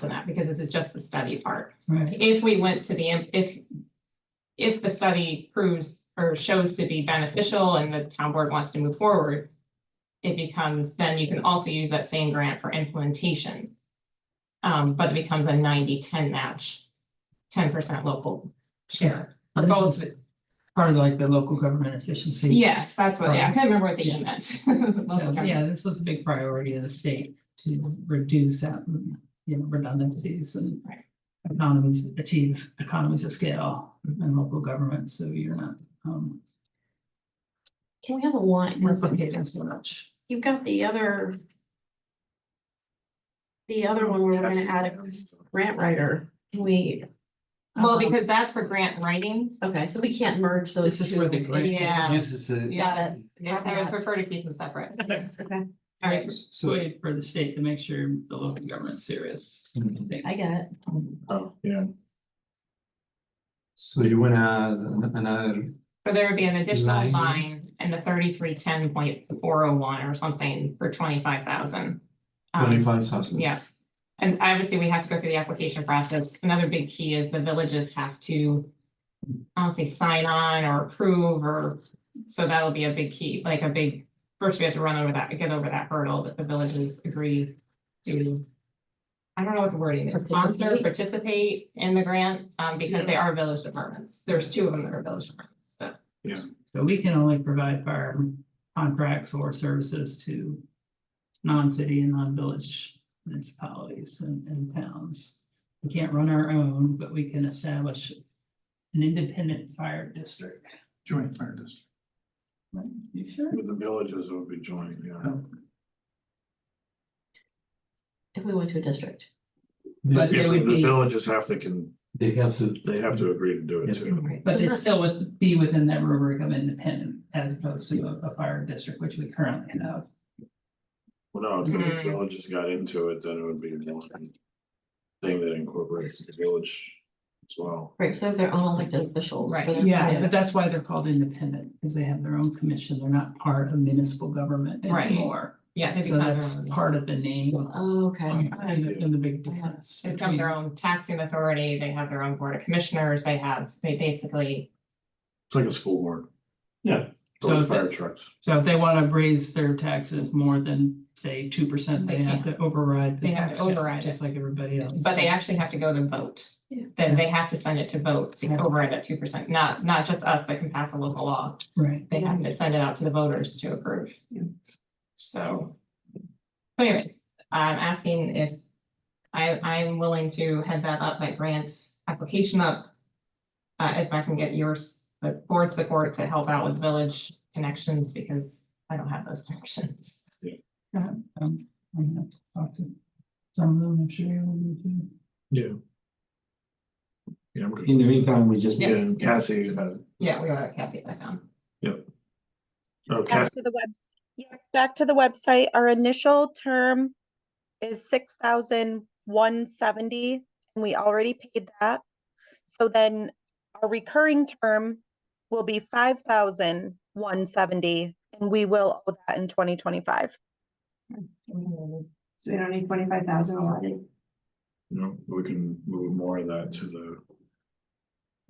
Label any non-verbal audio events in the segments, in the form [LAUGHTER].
than that, because this is just the study part. Right. If we went to the, im- if. If the study proves or shows to be beneficial and the town board wants to move forward. It becomes, then you can also use that same grant for implementation. Um, but it becomes a 90-10 match, ten percent local share. I for think both. it's Part of like the local government efficiency. Yes, that's what, yeah, I couldn't remember what the E meant. [LAUGHS] Local So, government. Yeah, this was a big priority of the state to reduce that, you know, redundancies and Right. economies, achieves economies of scale and local government, so you're not um Can we have a line? 'Cause replicating so much. You've got the other. The other one where we're gonna add a grant writer. Can we? Well, um, because that's for grant writing. Okay, so we can't merge those. This is two. where the grant- Yeah. Uses the. Got it. Yeah, I would prefer to keep them separate. [LAUGHS] Okay, All right, So, Way for the state to make sure the local government's serious. Mhm. They- I get it. oh, yeah. So you wanna add another, but there would be an additional Line. line in the thirty-three ten point four oh one or something for twenty-five thousand. Um, twenty-five thousand? Yeah, and obviously we have to go through the application process. Another big key is the villages have to. I don't say sign on or approve or, so that'll be a big key, like a big, first we have to run over that, get over that hurdle that the villages agree to. I don't know what the wording is, sponsor, Participate? participate in the grant, um, because they are village departments. There's two of them that are village departments, so. So we can only provide fire contracts or services to non-city and non-village municipalities and, and towns. We can't run our own, but we can establish an independent fire district. Joint fire district. You sure? With the villages it would be joined, yeah. If we went to a district. But Yeah, there so would the be, villages have to can, They have to. they have to agree to do it too. Mm-hmm. but it still would be within that rubric of independent as opposed to a, a fire district, which we currently have. Well, no, if the Mhm. Mm-hmm. villages got into it, then it would be one thing that incorporates the village as well. Right, so they're own elected officials. for Right. their- Yeah, but that's why they're called independent, because they have their own commission. They're not part of municipal government Right. anymore. Yeah. they So become their that's own- part of the name. Oh, Okay, And the- and the big difference. They become their between- own taxing authority, they have their own board of commissioners, they have, they basically, It's like a school board. Yeah. So So is fire trucks. So if they want to raise their taxes more than, say, two percent, they They have to override. the They have tax to cap, override it. Just like everybody else. but they actually have to go to vote. Yeah. Then they have to send it to vote to Yeah. override that two percent, not, not just us that can pass a local law. Right. They have to send it out to the voters to approve. So. so Anyways, I'm asking if I, I'm willing to head that up, that grant application up. Uh, if I can get yours, the board support to help out with village connections, because I don't have those [LAUGHS] connections. Um, I'm gonna talk to some of them, I'm sure. you'll need to. Yeah. Yeah, I'm good. In the meantime, we just. Yeah, and Cassie, uh, Yeah, we are, Cassie, back on. oh, back Cassie, to the webs, yeah, back to the website, our initial term is six thousand one seventy, and we already paid that. So then our recurring term will be five thousand one seventy, and we will owe that in twenty twenty-five. So we don't need twenty-five thousand allotted. you know, we can move more of that to the.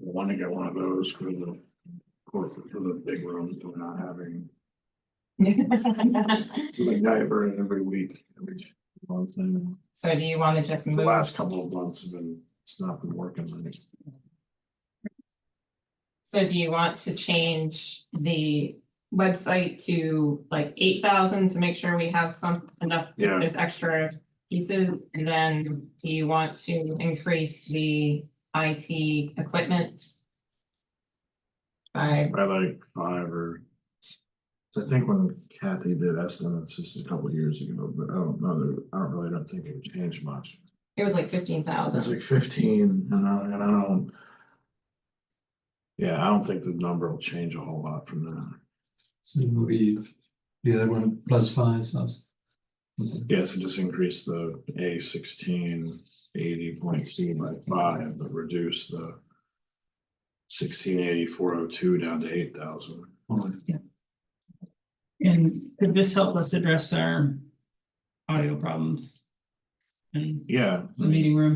we Want to get one of those for the, for for the big rooms, we're not having. Like diaper in every week, every month, and [LAUGHS] So do you want to just the move, last couple of months have been, it's not been working. I think. so do you want to change the website to like eight thousand to make sure we have some enough, Yeah. there's extra pieces? And then do you want to increase the IT equipment? By, By like five or. I think when Kathy did estimates just a couple of years ago, but I don't know, there- I don't really don't think it would change much. it was like fifteen It's thousand. like fifteen and I, and I don't. Yeah, I don't think the number will change a whole lot from that. So it will be the other one plus five thousand. Yeah, so just increase the A sixteen eighty point C by five, but reduce the. Sixteen eighty four oh two down to eight thousand. Oh, And could this help us address our audio problems? and yeah. I the mean, meeting room.